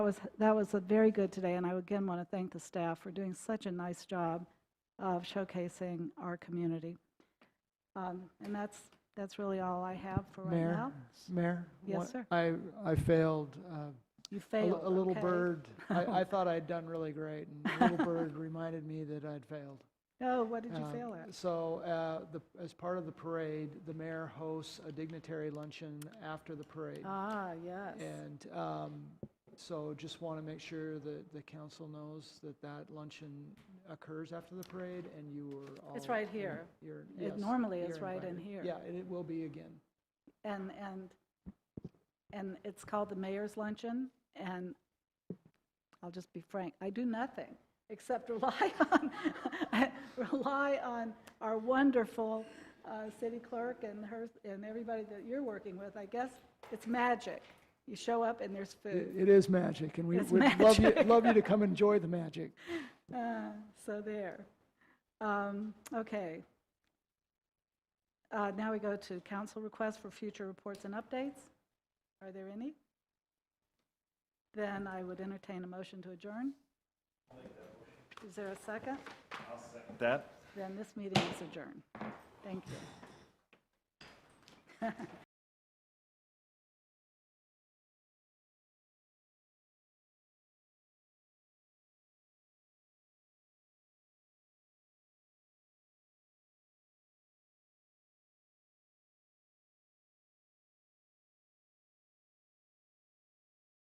That was, that was uh, very good today, and I again want to thank the staff for doing such a nice job of showcasing our community. Um, And that's, that's really all I have for right Mayor? now. Mayor? Yes, one- sir. I, I failed. uh, You a li- failed. A little okay. bird, I, I thought I'd done really great, and a little bird reminded me that I'd failed. Oh, what did you Um, fail at? So, uh, the, as part of the parade, the mayor hosts a dignitary luncheon after the parade. Ah, yes. And um, so just want to make sure that the council knows that that luncheon occurs after the parade, and you were all. It's right here. You're, yes. It normally is you're right in invited. here. Yeah, and it will be again. And, and, and it's called the Mayor's Luncheon, and I'll just be frank, I do nothing except rely on, rely on our wonderful uh, city clerk and her, and everybody that you're working with. I guess it's magic. You show up and there's It food. it is magic, and we It's would love you, magic. love you to come enjoy the magic. Uh, So there. Um, Okay. Uh, Now we go to council requests for future reports and updates. Are there any? Then I would entertain a motion to adjourn. Is there a second? That? Then this meeting is adjourned. Thank you.